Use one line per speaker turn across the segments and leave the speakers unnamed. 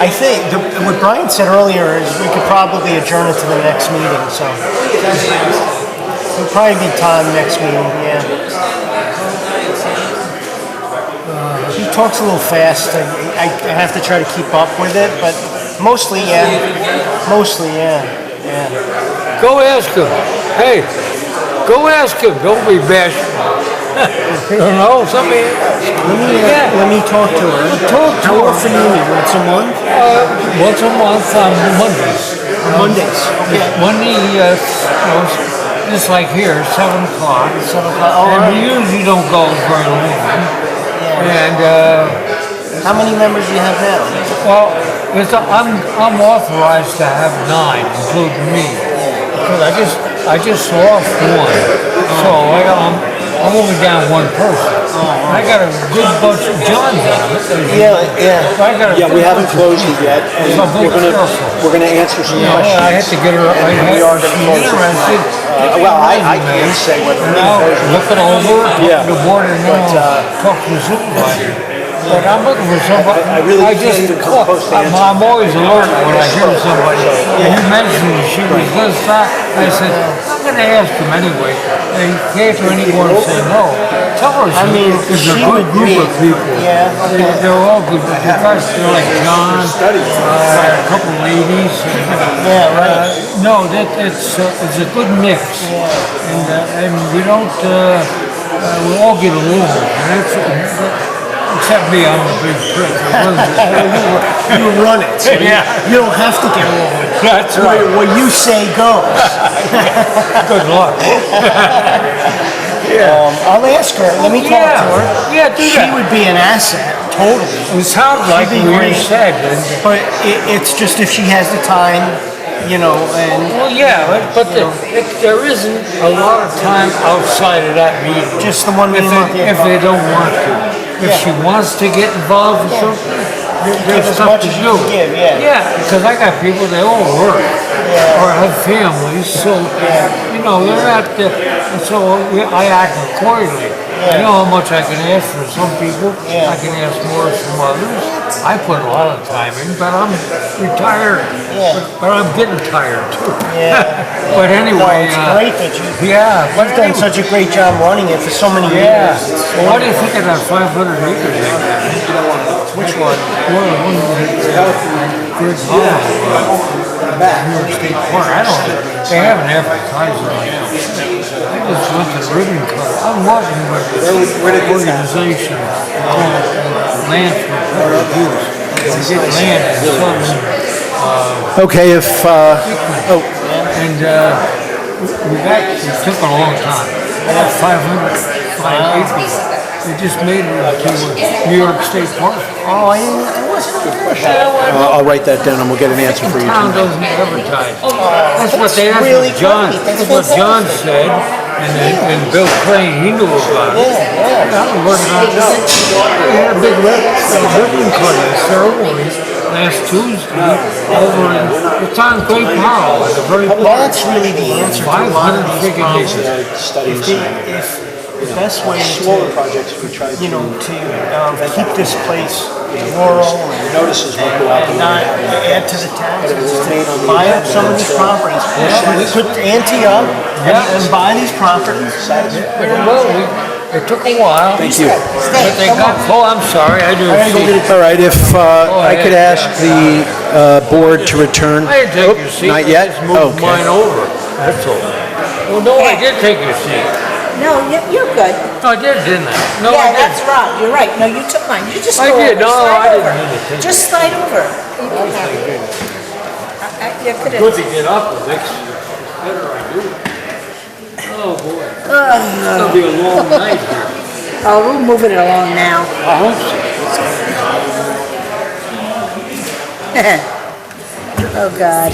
I think the, what Brian said earlier is we could probably adjourn it to the next meeting, so. It'll probably be time next meeting, yeah. Uh, He talks a little fast, and I, I have to try to keep up with it, but mostly, yeah. Mostly, yeah, yeah.
Go ask him. Hey, go ask him. Don't be bashful. you don't know somebody.
Let me, uh,
Yeah.
let me talk to her. Talk to her. How often you meet, once a month?
Uh, once a month on Mondays.
Mondays, okay.
Monday, uh, goes- it's like here, seven o'clock.
Seven o'clock, all
And we
right.
usually don't go very long.
Yeah.
And uh,
How many members do you have now?
well, it's, I'm I'm authorized to have nine, including me. Because I just I just lost one, so I, I'm I'm only down one person. I got a good bunch of John's on it. as you
Yeah, yeah.
So I got a-
Yeah, we haven't closed it yet, and
So
we're gonna,
careful.
we're gonna answer some
You know, I had to
questions.
get her, I
And
had,
we are gonna
she's
close it
interested.
Uh, well, I- I can't say whether we're
Now,
gonna close it.
Look it over,
Yeah.
talk to the board and then
But,
I'll
uh,
talk to the supervisor. But I'm looking for somebody,
I- I really
I just,
can't even come
look,
close to
I'm,
answer.
I'm always alert when I hear somebody. You mentioned she was this, that, I said, I'm gonna ask him anyway. And Catherine, anyone say no. Tell her,
I mean,
it's a
she
good
would
group
be-
of people.
yeah, okay.
They're- They're all good, the guys, they're like John, uh, a couple ladies. and-
Yeah, right.
uh, No, that, it's, uh, it's a good mix. And, uh, and we don't, uh, uh, we all get along. And that's- Except me, I'm a big prick.
You run it. so you-
Yeah.
You don't have to get along.
That's
What, what you say goes.
Good luck.
Um, I'll ask her, let me talk
Yeah.
to her.
Yeah, do
She
that.
would be an asset, totally.
It sounds like
She'd be
we
great.
said, and-
But it, it's just if she has the time, you know, and
well, yeah, but- but the- it- there isn't a lot of time outside of that meeting.
just the one
If
meeting a month.
they, if they don't want to. If
Yeah.
she wants to get involved in something, there-
Give
there's
as
stuff
much
to
as you
do.
can give, yeah.
Yeah, because I got people, they all work or have families, so, you know, they're not, the- and so we- I act accordingly. I know how much I can ask for some people,
Yeah.
I can ask more from others. I put a lot of time in, but I'm retired,
Yeah.
but- but I'm getting tired too.
Yeah.
But
No,
anyway,
it's
uh,
great that you,
yeah. but
you've done
anyway.
such a great job running it for so many
Yeah.
years. It's
Well, What do you think of that 500 acres? Which one? Well, the one that's Greg Hall. New York State Park. I don't, they haven't advertised it right now. I just went to the ribbon cut. I'm working with this organization called Land for Public Use. They get land in southern
Okay, if, uh,
Oh, and uh, we got, it took a long time. I got 500, five acres. They just made it into New York State Park. Oh, I didn't, I wasn't aware of that.
I'll I'll write that down and we'll get an answer for you.
Town doesn't advertise. That's what they, that's
really
what John,
great. That's
that's what John said, and, then- and Bill Crane, he knew about it.
Yeah, yeah.
I was working on it. We had a big rip, a ribbon cutting ceremony last Tuesday over in, it's on Great Powell, at the very.
Well, that's really the answer to a lot of
500
these
freaking
problems.
acres.
Studies.
If, the- if the best way
Smaller
to,
projects, we try
you
to,
know, to um, keep this place rural and
notices will go out.
and not add to the taxes, is to buy up some of these properties. Put ante up and
Yeah.
and buy these properties.
Well, we, it took a while.
Thank you.
But they got, oh, I'm sorry, I didn't see.
All right, if, uh, I could ask the, uh, board to return.
I didn't take your
Oop,
seat.
Not yet?
I just moved mine
Okay.
over, that's all. Well, no, I did take your seat.
No, you- you're good.
No, I did, didn't I? No, I
Yeah,
didn't.
that's wrong, you're right. No, you took mine, you just
I
go over.
did. No,
Slide
I didn't
over.
mean to take
Just slide over. You can have it. I- I- You
Good
couldn't.
to get up the next, better I do. Oh, boy. It'll be a long night here.
Oh, we're moving it along now.
I hope so.
Oh, God.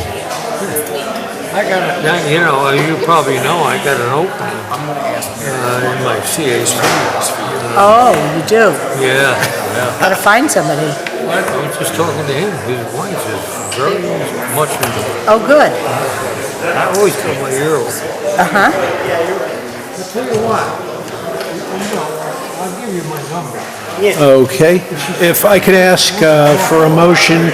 I got a, now, you know, as you probably know, I got an opening. I'm gonna ask. Uh, in my CAC.
Oh, you do.
Yeah.
Gotta find somebody.
I was just talking to him, his wife is very much into it.
Oh, good.
I always cut my ear off.
Uh-huh.
I tell you what, you know, I'll give you my number.
Okay, if I could ask, uh, for a motion